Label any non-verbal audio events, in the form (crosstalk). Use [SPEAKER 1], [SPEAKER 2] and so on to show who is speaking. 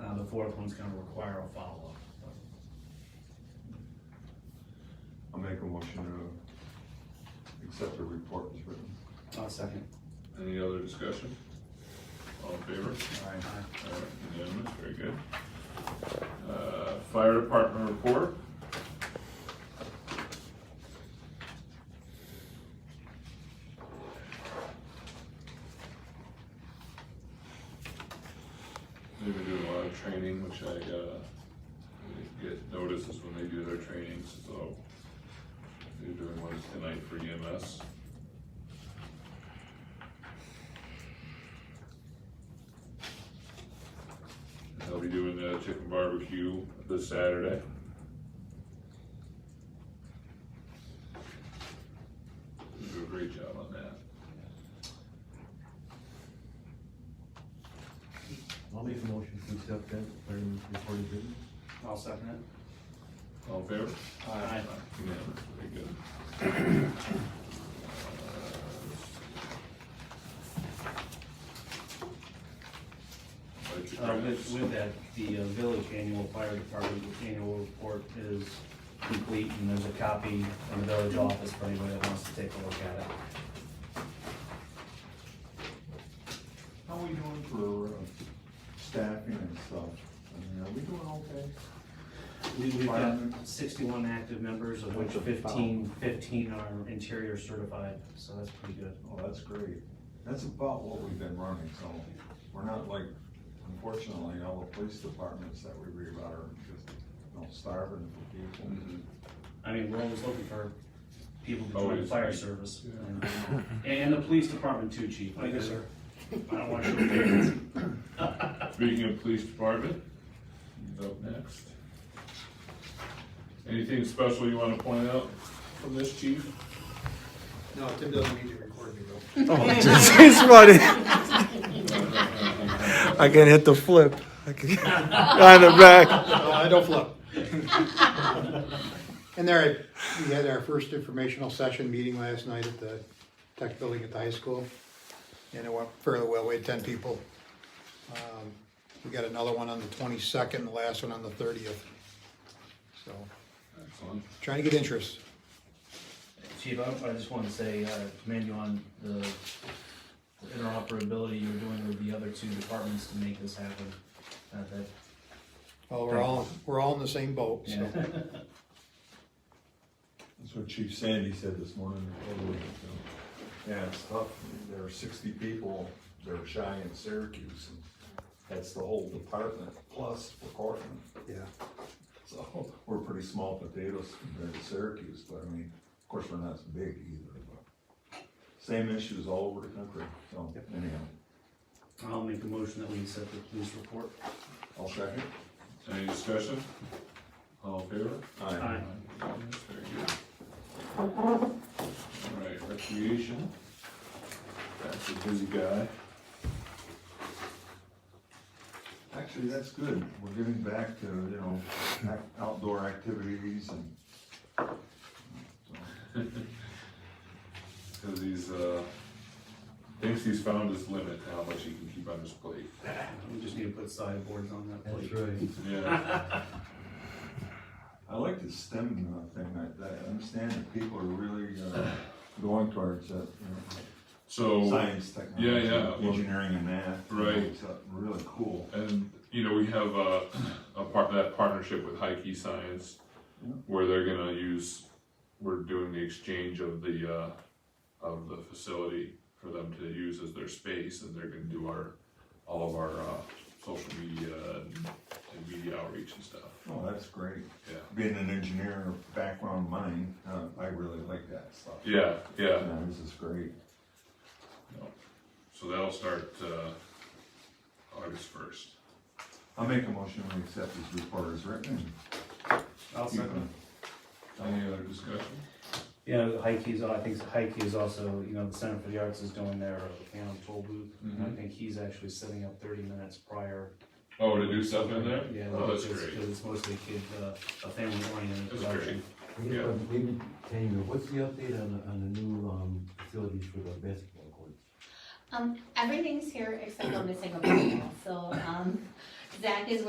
[SPEAKER 1] Uh, fourth one's gonna require a follow-up. but-
[SPEAKER 2] I'll make a motion to accept the report as written.
[SPEAKER 1] I'll second.
[SPEAKER 3] Any other discussion? All in favor?
[SPEAKER 1] All right.
[SPEAKER 3] All right, unanimous, very good. Uh, fire department report? They were doing a lot of training, which I, uh, didn't get notices when they do their trainings, so they're doing one tonight for E EMS. And They'll be doing the chicken barbecue this Saturday. You do a great job on that.
[SPEAKER 4] I'll make a motion to accept that, fireman's report is written.
[SPEAKER 1] I'll second it.
[SPEAKER 3] All in favor?
[SPEAKER 1] All right.
[SPEAKER 3] Unanimous, very good. Like your
[SPEAKER 1] Uh, with,
[SPEAKER 3] grants.
[SPEAKER 1] with that, the uh, village annual fire department annual report is complete, and there's a copy in the village office for anybody that wants to take a look at it.
[SPEAKER 2] How are we doing for uh, staffing and stuff? I mean, are we doing okay?
[SPEAKER 1] We- We've got
[SPEAKER 2] Firemen.
[SPEAKER 1] sixty-one active members, of which
[SPEAKER 2] Which are
[SPEAKER 1] 15 15 are interior certified, so that's pretty good.
[SPEAKER 2] Oh, that's great. That's about what we've been running, so we're not like, unfortunately, all the police departments that we read about are just, you know, starving for people.
[SPEAKER 3] Mhm.
[SPEAKER 1] I mean, we're always looking for people to
[SPEAKER 5] Oh,
[SPEAKER 1] join the
[SPEAKER 3] Always.
[SPEAKER 1] fire service.
[SPEAKER 3] Yeah.
[SPEAKER 1] And- uh, And the police department too, chief. uh,
[SPEAKER 5] Thank you, sir.
[SPEAKER 1] I don't want to.
[SPEAKER 3] Speaking of police department, he's up next. Anything special you wanna point out from this chief?
[SPEAKER 5] No, Tim doesn't need to record me though.
[SPEAKER 6] Oh, geez, he's running.
[SPEAKER 3] Alright,
[SPEAKER 6] I can hit the flip. I can (laughs) on the back.
[SPEAKER 5] No, I don't flip. (laughs) And there, we had our first informational session meeting last night at the tech building at the high school. And it went fairly well, we had ten people. Um, We got another one on the twenty-second, the last one on the thirtieth. So,
[SPEAKER 3] Excellent.
[SPEAKER 5] trying to get interest.
[SPEAKER 1] Chief, I I just want to say, uh, commend you on the interoperability you're doing with the other two departments to make this happen. Uh, that-
[SPEAKER 5] Well, we're all, we're all in the same boat, so.
[SPEAKER 1] yeah.
[SPEAKER 2] That's what Chief Sandy said this morning. Yeah, it's tough. There are sixty people, they're shy in Syracuse, and that's the whole department, plus recording.
[SPEAKER 5] Yeah,
[SPEAKER 2] So, we're pretty small potatoes compared to Syracuse, but I mean, of course, we're not as big either, but same issues all over the country, so anyhow,
[SPEAKER 1] I'll make a motion that we accept the police report.
[SPEAKER 2] I'll second.
[SPEAKER 3] Any discussion? All in favor?
[SPEAKER 1] Aye.
[SPEAKER 3] Very good. Alright, recreation. That's a busy guy.
[SPEAKER 2] Actually, that's good. We're giving back to, you know, ac- outdoor activities and
[SPEAKER 3] Cause he's, uh, thinks he's found his limit, to how much he can keep on his plate.
[SPEAKER 1] We just need to put sideboards on that plate.
[SPEAKER 4] right.
[SPEAKER 3] Yeah,
[SPEAKER 2] I like the STEM uh, thing, I, I understand that people are really, uh, going towards that, you know,
[SPEAKER 3] so.
[SPEAKER 2] science, technology,
[SPEAKER 3] yeah, Oh, yeah, well-
[SPEAKER 2] engineering and math.
[SPEAKER 3] Right.
[SPEAKER 2] It's uh, really cool.
[SPEAKER 3] And, you know, we have a, a part, that partnership with Heike Science,
[SPEAKER 2] Yeah.
[SPEAKER 3] where they're gonna use, we're doing the exchange of the, uh, of the facility for them to use as their space, and they're gonna do our, all of our, uh, social media and and media outreach and stuff,
[SPEAKER 2] Oh, that's great.
[SPEAKER 3] yeah.
[SPEAKER 2] Being an engineer background mine, uh, I really like that stuff.
[SPEAKER 3] Yeah, yeah,
[SPEAKER 2] Yeah, this is great.
[SPEAKER 3] so that'll start, uh, August first.
[SPEAKER 2] I'll make a motion to accept this report as written.
[SPEAKER 1] I'll second.
[SPEAKER 3] Any other discussion?
[SPEAKER 1] You know, Heike's, I think Heike is also, you know, the Center for the Arts is doing their Phantom Toll Booth. And I
[SPEAKER 3] Mhm.
[SPEAKER 1] think he's actually setting up thirty minutes prior.
[SPEAKER 3] Oh, to do stuff in there?
[SPEAKER 1] Yeah,
[SPEAKER 3] Oh, that's
[SPEAKER 1] because-
[SPEAKER 3] great.
[SPEAKER 1] Because it's mostly kid, uh, a family oriented
[SPEAKER 3] That's
[SPEAKER 1] production.
[SPEAKER 4] Maybe, maybe, Tanya, what's the update on, the- on the new, um, facilities for the basketball courts?
[SPEAKER 7] Um, everything's here except I'm missing a basketball, so, um, Zach is